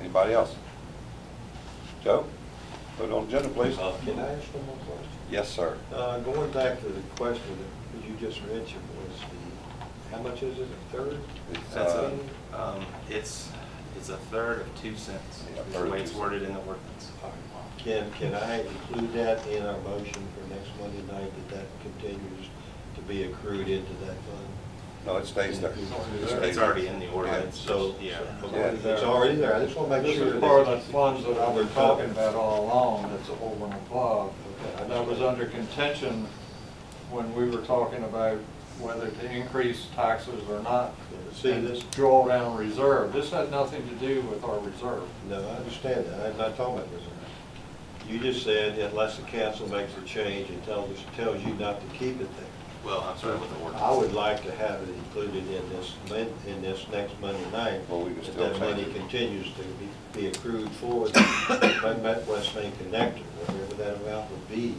Anybody else? Joe, put it on the agenda, please. Uh, Can I ask one more question? Yes, sir. Uh, Going back to the question that you just mentioned was the, how much is it, a third? It's, That's a, uh, um, it's, it's a third of two cents, Yeah, a third is the of way two it's cents. worded in the ordinance. Can, can I include that in our motion for next Monday night, that that continues to be accrued into that fund? No, it stays there. It stays It's already in the there. ordinance, so, yeah. Yeah. It's already there, I just want to make This sure. is that- part of the funds that I was We're talking about all along, that's over and above. And that was under contention when we were talking about whether to increase taxes or not. See this? Drawdown reserve. This had nothing to do with our reserve. No, I understand that, I'm not talking about this. You just said unless the council makes a change and tells us, tells you not to keep it there. Well, I'm sorry, with the I ordinance. would like to have it included in this, mon- in this next Monday night. Well, we can that still That money change it. continues to be- be accrued for the West Main Connector, whatever that amount would be,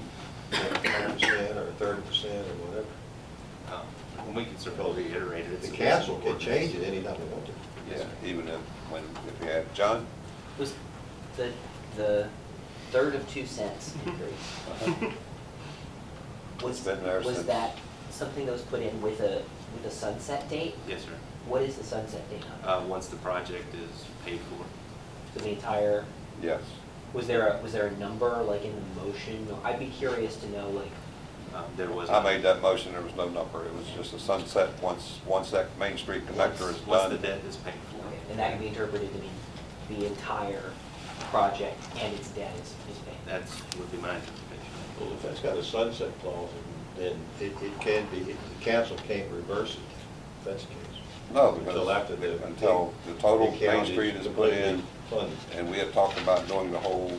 ten percent or thirty percent or whatever. Um, And we can certainly reiterate it. It's The in council can ordinance. change it anytime they want to. Yeah, even if, when, if you had, John? Was the, the third of two cents Mhm. increase? It's Was, been there was since- that something that was put in with a, with a sunset date? Yes, sir. What is the sunset date on? Um, Uh, Once the project is paid for. For the entire, Yes. was there a, was there a number, like in the motion? I'd be curious to know, like, Um, There was. I made that motion, there was no number, it was just a sunset, once, once that Main Street connector is Once- Once the done. debt is paid okay, for. and that can be interpreted to mean the entire project and its debt is, is paid. That's, would be my interpretation. Well, if that's got a sunset clause, then it, it can be, the council can't reverse it, if that's the case. No, Until after because, the. until the total the Main county's Street is put completely in, Funded. and we had talked about doing the whole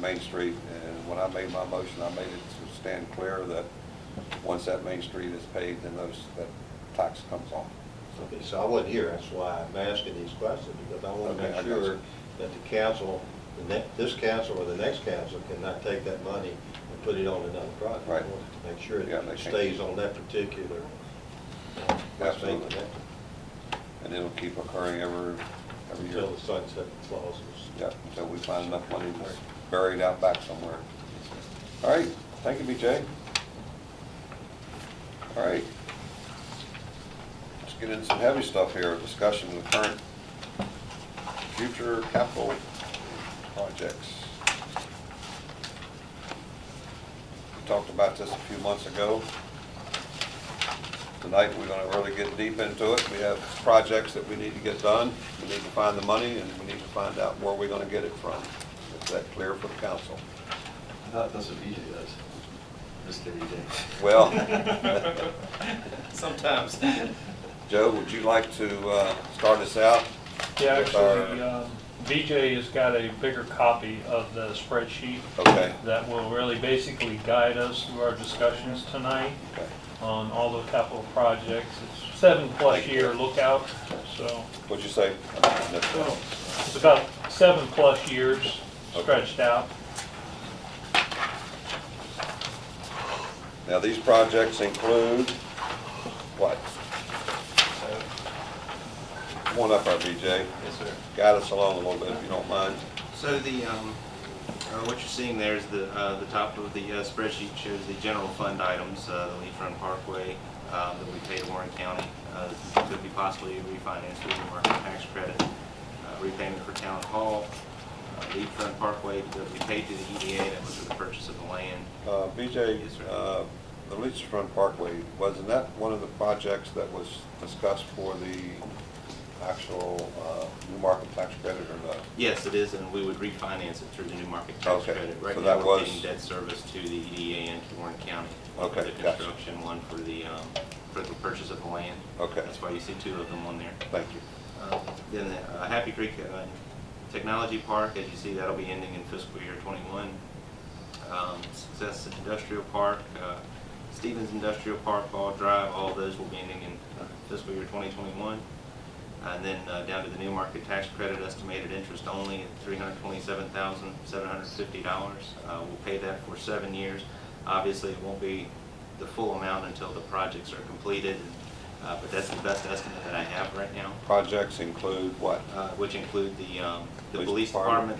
Main Street, and when I made my motion, I made it to stand clear that once that Main Street is paid, then those, that tax comes off. Okay, so I wasn't here, that's why I'm asking these questions, because I want to Okay, I make got you. sure that the council, the ne this council or the next council cannot take that money and put it on another project. Right. I wanted to make sure Yeah, that they it can't. stays on that particular. uh, Absolutely. connector And it'll keep occurring every, every year. Until the sunset clause is. Yeah, until we find enough money that's buried out back somewhere. All right, thank you, BJ. All right. Let's get into some heavy stuff here, discussion of the current future capital projects. We talked about this a few months ago. Tonight, we're gonna really get deep into it. We have projects that we need to get done. We need to find the money, and we need to find out where we're gonna get it from. Is that clear for the council? That- That's what BJ does. E Mr. BJ. Well, Sometimes. Joe, would you like to uh, start us out? Yeah, with our- actually, um, BJ has got a bigger copy of the spreadsheet Okay, that will really basically guide us through our discussions tonight okay. on all the capital projects. It's seven-plus Thank you. year lookout, so What'd you say? I missed that. it's about seven-plus years stretched out. Now, these projects include what? Come on up, our BJ. Yes, sir. Guide us along a little bit, if you don't mind. So the, um, uh, what you're seeing there is the, uh, the top of the uh, spreadsheet shows the general fund items, uh, the Lee Front Parkway, um, that we pay to Warren County, uh, could be possibly refinanced with the market tax credit, uh, repayment for town hall, uh, Lee Front Parkway that we paid to the EDA, that was for the purchase of the land. Uh, BJ, Yes, sir. uh, the Leach Front Parkway, wasn't that one of the projects that was discussed for the actual uh, new market tax credit or not? Yes, it is, and we would refinance it through the new market tax Okay, credit. so Right that now, we're was- paying debt service to the E EDA and to Warren County. Okay, For the gotcha. construction, one for the, um, for the purchase of the land. Okay. That's why you see two of them on there. Thank you. Uh, Then the uh, Happy Creek uh, Technology Park, as you see, that'll be ending in fiscal year '21. Success Industrial Park, uh, Stevens Industrial Park, Ball Drive, all of those will be ending in fiscal year 2021. And then uh, down to the new market tax credit, estimated interest only at $327,750. Uh, We'll pay that for seven years. Obviously, it won't be the full amount until the projects are completed and Uh, But that's the best estimate that I have right now, Projects include what? uh, which include the, um, the Police police department. department,